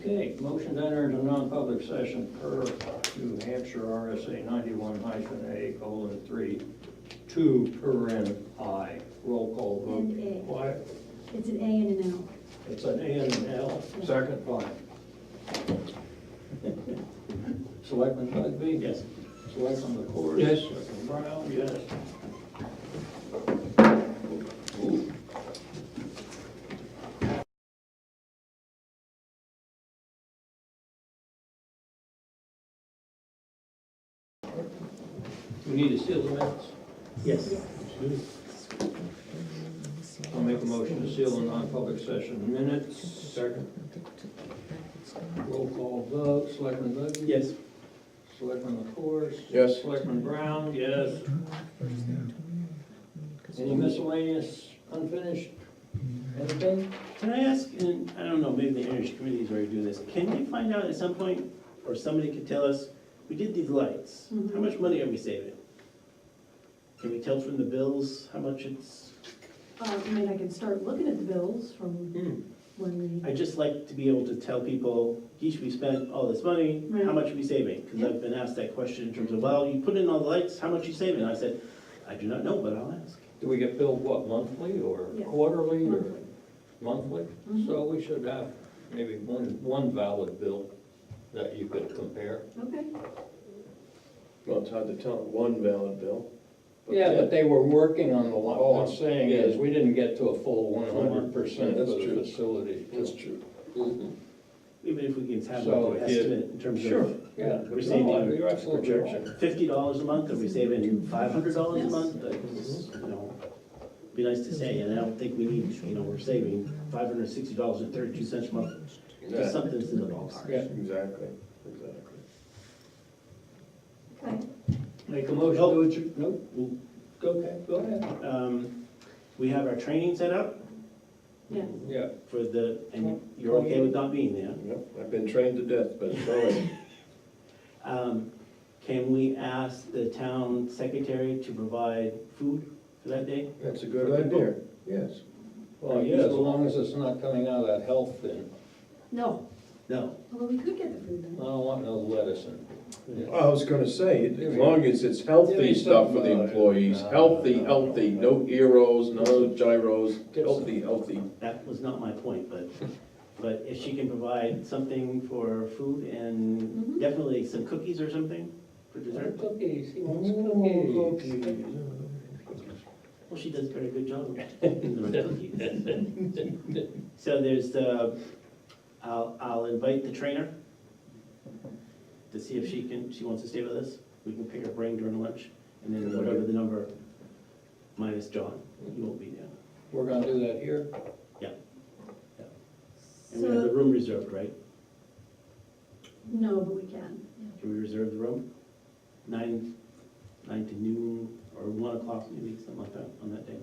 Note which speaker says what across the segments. Speaker 1: Okay, motion to enter into non-public session per New Hampshire RSA ninety-one hyphen A colon three, two per N I. Roll call vote.
Speaker 2: And A.
Speaker 1: Quiet.
Speaker 2: It's an A and an L.
Speaker 1: It's an A and an L.
Speaker 3: Second.
Speaker 1: Fine. Selectman Bugby? Yes. Selectman LaCourse?
Speaker 3: Yes.
Speaker 1: Selectman Brown? Yes. We need to seal the minutes.
Speaker 4: Yes.
Speaker 1: I'll make a motion to seal the non-public session minutes.
Speaker 3: Second.
Speaker 1: Roll call vote, Selectman Bugby?
Speaker 4: Yes.
Speaker 1: Selectman LaCourse?
Speaker 3: Yes.
Speaker 1: Selectman Brown, yes. Any miscellaneous unfinished anything?
Speaker 4: Can I ask, and I don't know, maybe the energy committee is already doing this, can we find out at some point, or somebody could tell us, we did these lights, how
Speaker 2: Mhm.
Speaker 4: much money are we saving? Can we tell from the bills how much it's,
Speaker 2: Uh, I mean, I can start looking at the bills from
Speaker 4: Hmm.
Speaker 2: when we,
Speaker 4: I just like to be able to tell people, geez, we spent all this money, how
Speaker 2: Right.
Speaker 4: much are we saving? Because I've been asked that question in terms of, well, you put in all the lights, how much you saving? I said, I do not know, but I'll ask.
Speaker 1: Do we get billed, what, monthly or
Speaker 2: Yes.
Speaker 1: quarterly or
Speaker 2: monthly.
Speaker 1: monthly?
Speaker 2: Mhm.
Speaker 1: So we should have maybe one, one valid bill that you could compare.
Speaker 2: Okay,
Speaker 3: Well, it's hard to tell, one valid bill.
Speaker 1: Yeah, but they were working on the, li- all I'm saying
Speaker 3: Yeah.
Speaker 1: is, we didn't get to a full one hundred percent of
Speaker 3: That's
Speaker 1: the
Speaker 3: true.
Speaker 1: facility.
Speaker 3: That's true.
Speaker 4: Even if we can have
Speaker 1: So
Speaker 4: like an
Speaker 1: if you-
Speaker 4: estimate in terms of.
Speaker 1: Sure, yeah.
Speaker 4: We're saving-
Speaker 1: No, You're absolutely right.
Speaker 3: Projection.
Speaker 4: fifty dollars a month, are we saving five hundred dollars a month? Like, You know, be nice to say, and I don't think we need, you know, we're saving five hundred and sixty dollars and thirty-two cents a month, just
Speaker 3: Yeah,
Speaker 4: something's in the ballpark.
Speaker 1: Yeah.
Speaker 3: Exactly, exactly.
Speaker 2: okay.
Speaker 1: Make a motion to adjourn, nope, we'll- okay, go ahead.
Speaker 4: Um, we have our training set up
Speaker 2: Yes.
Speaker 1: Yeah.
Speaker 4: for the, and you're okay with not being there.
Speaker 3: Yep, I've been trained to death, but it's always,
Speaker 4: Um, can we ask the town secretary to provide food for that day?
Speaker 3: that's a good idea, yes.
Speaker 1: Well, yeah, as long as it's not coming out of that health bin,
Speaker 2: No,
Speaker 4: No,
Speaker 2: although we could get the food
Speaker 1: I
Speaker 2: then.
Speaker 1: don't want no lettuce in it.
Speaker 3: I was gonna say, as long as it's healthy stuff for the employees, healthy, healthy, no gyros, no gyros, healthy, healthy.
Speaker 4: that was not my point, but, but if she can provide something for food and
Speaker 2: Mhm.
Speaker 4: definitely some cookies or something for dessert.
Speaker 1: Cookies, he wants cookies.
Speaker 4: Well, she does a very good job of the cookies. So there's the, I'll, I'll invite the trainer to see if she can, she wants to stay with us. We can pick her brain during lunch, and then whatever the number, minus John, he won't be there.
Speaker 1: We're gonna do that here?
Speaker 4: And we have the
Speaker 2: So,
Speaker 4: room reserved, right?
Speaker 2: no, but we can.
Speaker 4: Can we reserve the room? Nine, nine to noon, or one o'clock maybe, something like that, on that day.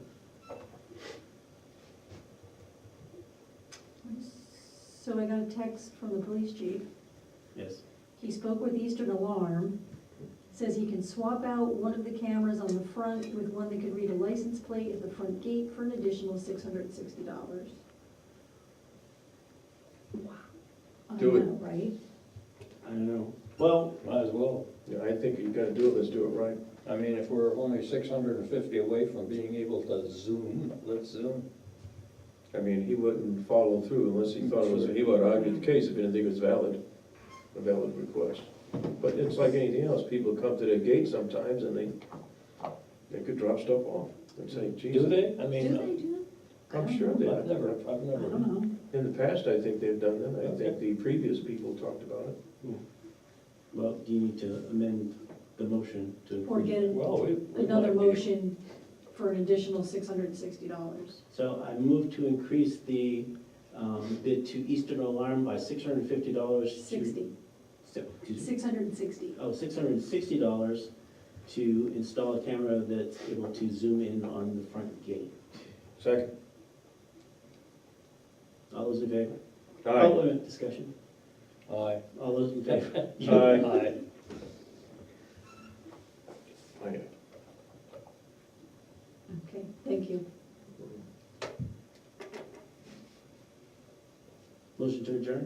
Speaker 2: So I got a text from the police chief.
Speaker 4: Yes,
Speaker 2: He spoke with Eastern Alarm. Says he can swap out one of the cameras on the front with one that could read a license plate at the front gate for an additional six hundred and sixty dollars. Wow. I
Speaker 3: Do it.
Speaker 2: know, Right?
Speaker 4: I don't know. Well,
Speaker 1: Might as well.
Speaker 3: Yeah, I think you gotta do it, let's do it right.
Speaker 1: I mean, if we're only six hundred and fifty away from being able to zoom, let's zoom.
Speaker 3: I mean, he wouldn't follow through unless he thought it was, he would argue the case if he didn't think it was valid, a valid request. But it's like anything else, people come to their gate sometimes and they, they could drop stuff off and say, geez.
Speaker 1: Do they? I
Speaker 2: Do
Speaker 1: mean,
Speaker 2: they do that? I
Speaker 3: I'm
Speaker 2: don't
Speaker 3: sure
Speaker 2: know.
Speaker 3: they,
Speaker 1: I've never, I've
Speaker 2: I
Speaker 1: never.
Speaker 2: don't know.
Speaker 3: in the past, I think they've done that, I
Speaker 1: Okay.
Speaker 3: think the previous people talked about it.
Speaker 4: well, do you need to amend the motion to
Speaker 2: Or
Speaker 4: include?
Speaker 2: get an-
Speaker 1: Well, we. we
Speaker 2: another
Speaker 1: might be-
Speaker 2: motion for an additional six hundred and sixty dollars.
Speaker 4: So I move to increase the um, bid to Eastern Alarm by six hundred and fifty dollars to.
Speaker 2: Sixty.
Speaker 4: So, excuse me.
Speaker 2: Six hundred and sixty.
Speaker 4: Oh, six hundred and sixty dollars to install a camera that's able to zoom in on the front gate.
Speaker 3: Second,
Speaker 4: All those in favor? Oh,
Speaker 3: aye,
Speaker 4: wait a minute, discussion.
Speaker 1: Aye.
Speaker 4: All those in favor?
Speaker 3: aye.
Speaker 1: Aye.
Speaker 3: Aye.
Speaker 2: Okay, thank you.
Speaker 4: Motion to adjourn?